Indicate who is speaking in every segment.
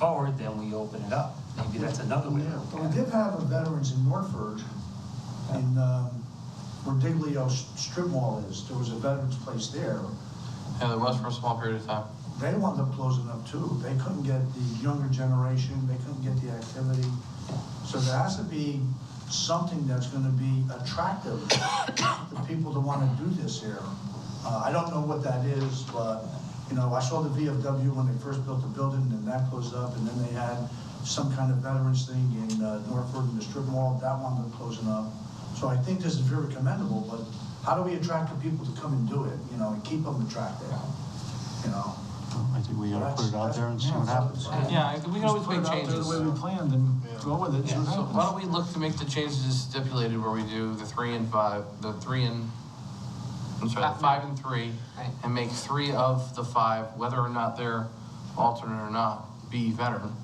Speaker 1: forward, then we open it up. Maybe that's another way to
Speaker 2: But we
Speaker 1: look at it.
Speaker 2: did have a veterans in Norford, in, um, where Diglio's strip mall is, there was a veterans place there.
Speaker 3: Yeah, there was for a small period of time.
Speaker 2: They wound up closing up too, they couldn't get the younger generation, they couldn't get the activity. So there has to be something that's gonna be attractive to people to wanna do this here. Uh, I don't know what that is, but, you know, I saw the VFW when they first built the building, and that closed up, and then they had some kind of veterans thing in uh, Norford in the strip mall, that one was closing up. So I think this is very commendable, but how do we attract the people to come and do it, you know, and keep them attracted, you know?
Speaker 4: I think we gotta put it out there and see what happens.
Speaker 3: Yeah, I- we can always make
Speaker 5: Just
Speaker 3: changes.
Speaker 5: put it out there the way we planned and go with it, see
Speaker 3: Yeah,
Speaker 5: what
Speaker 3: so why don't
Speaker 5: happens.
Speaker 3: we look to make the changes as stipulated where we do the three and five, the three and, I'm sorry, the five and three, and make three of the five, whether or not they're alternate or not, be veteran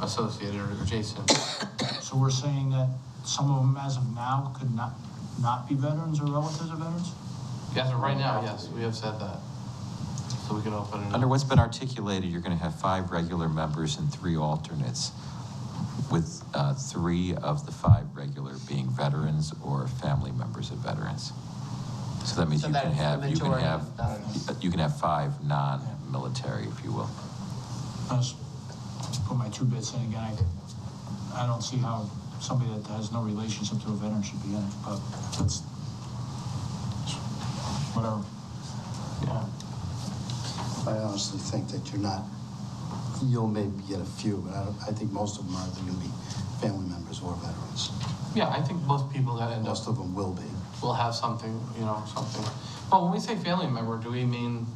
Speaker 3: associated or adjacent.
Speaker 5: So we're saying that some of them as of now could not, not be veterans or relatives of veterans?
Speaker 3: Yes, right now, yes, we have said that. So we can open it
Speaker 6: Mm-hmm.
Speaker 7: Under
Speaker 3: up.
Speaker 7: what's been articulated, you're going to have five regular members and three alternates, with uh, three of the five regular being veterans or family members of veterans. So that means
Speaker 6: So
Speaker 7: you
Speaker 6: that's
Speaker 7: can
Speaker 6: the
Speaker 7: have, you can
Speaker 6: majority
Speaker 7: have,
Speaker 6: of veterans.
Speaker 7: uh, you can have five non-military, if you will.
Speaker 5: I just just put my two bits in again. I, I don't see how somebody that has no relationship to a veteran should be in it, but that's, whatever.
Speaker 3: Yeah.
Speaker 8: I honestly think that you're not, you'll maybe get a few, but I, don't- I think most of them are either gonna be family members or veterans.
Speaker 3: Yeah, I think most people that end up
Speaker 8: Most of them will be.
Speaker 3: will have something, you know, something. Well, when we say family member, do we mean,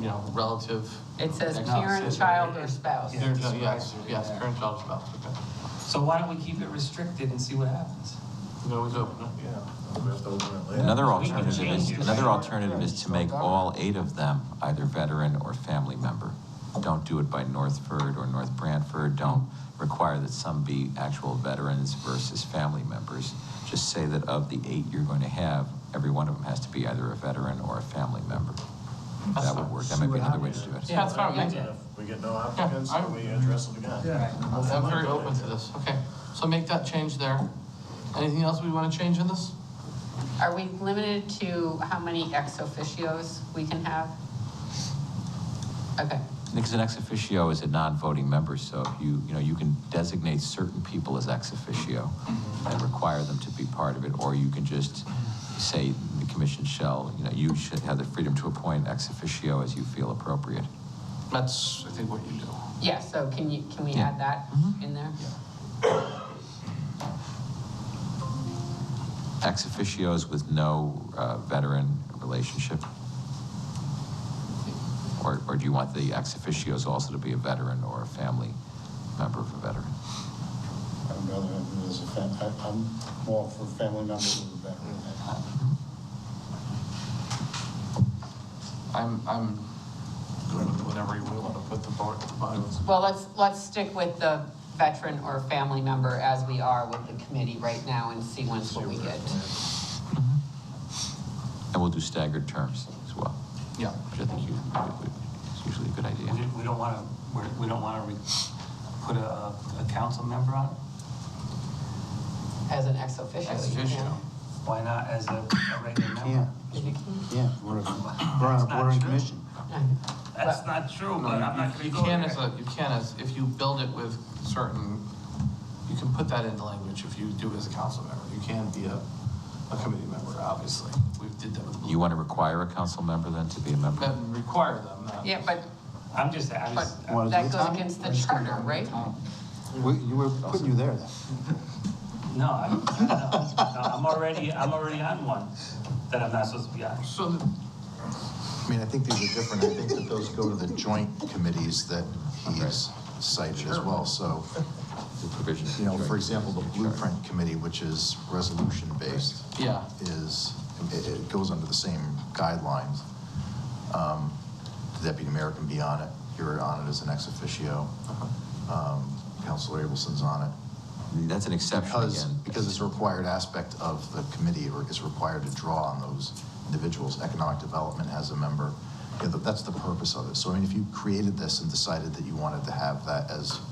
Speaker 3: you know, relative?
Speaker 6: It says
Speaker 3: Like,
Speaker 6: parent,
Speaker 3: sister?
Speaker 6: child, or spouse.
Speaker 3: Parent, child, Yes, yes, parent, child, spouse, okay.
Speaker 1: So why don't we keep it restricted and see what happens?
Speaker 3: We can always open it.
Speaker 9: Yeah, we have to open it later.
Speaker 7: Another
Speaker 1: we can
Speaker 7: alternative
Speaker 1: change
Speaker 7: is,
Speaker 1: it.
Speaker 7: another alternative is to make all eight of them either veteran or family member. Don't do it by Northford or North Brantford, don't require that some be actual veterans versus family members. Just say that of the eight you're going to have, every one of them has to be either a veteran or a family member.
Speaker 3: That's
Speaker 7: That would
Speaker 3: fine.
Speaker 7: work, that might be another way to do it.
Speaker 3: Yeah, that's fine,
Speaker 9: And
Speaker 3: with me.
Speaker 9: if we get no applicants,
Speaker 3: Yeah, I-
Speaker 9: then we address it again.
Speaker 3: I'm very open to this, okay. So make that change there. Anything else we want to change in this?
Speaker 6: Are we limited to how many ex officios we can have? Okay,
Speaker 7: Because an ex officio is a non-voting member, so if you, you know, you can designate certain people as ex officio and require them to be part of it, or you can just say the commission shall, you know, you should have the freedom to appoint ex officio as you feel appropriate.
Speaker 3: That's, I think, what you do.
Speaker 6: yeah, so can you, can we
Speaker 7: Yeah.
Speaker 6: add that in there?
Speaker 7: Ex officios with no uh, veteran relationship? Or, or do you want the ex officios also to be a veteran or a family member of a veteran?
Speaker 8: I'd rather have it as a fam, I, I'm more for family members or veterans.
Speaker 3: I'm, I'm good with whatever you want to put the board, the bylaws.
Speaker 6: Well, let's, let's stick with the veteran or family member as we are with the committee right now and see once what we get.
Speaker 7: And we'll do staggered terms as well,
Speaker 3: Yeah.
Speaker 7: which I think you, is usually a good idea.
Speaker 1: We we don't want to, we don't want to put a, a council member on it?
Speaker 6: As an ex officio,
Speaker 3: Ex
Speaker 6: you
Speaker 3: officio.
Speaker 6: can.
Speaker 1: Why not as a a regular member?
Speaker 8: Yeah, we're, we're on, we're on commission.
Speaker 1: That's not true, but I'm not
Speaker 3: You-
Speaker 1: going to
Speaker 3: You
Speaker 1: go
Speaker 3: can as
Speaker 1: there.
Speaker 3: a, you can as, if you build it with certain, you can put that into language if you do as a council member. You can be a, a committee member, obviously. We did that with.
Speaker 7: You want to require a council member then to be a member?
Speaker 3: That require them, uh, not.
Speaker 6: Yeah, but,
Speaker 1: I'm just, I was,
Speaker 6: but that goes against the charter, right?
Speaker 8: We, you were putting you there then.
Speaker 1: no, I'm, no, no, I'm already, I'm already on one that I'm not supposed to be on.
Speaker 3: So, the-
Speaker 10: I mean, I think these are different. I think that those go to the joint committees that he's cited as well. So,
Speaker 7: The provision.
Speaker 10: you know, for example, the blueprint committee, which is resolution-based,
Speaker 3: yeah,
Speaker 10: is, it, it goes under the same guidelines. Um, The Deputy mayor can be on it. You're on it as an ex officio. Um, Counselor Abelson's on it.
Speaker 7: That's an exception
Speaker 10: Because,
Speaker 7: again.
Speaker 10: because it's a required aspect of the committee, or is required to draw on those individuals. Economic development has a member, You know, that's the purpose of it. So I mean, if you created this and decided that you wanted to have that as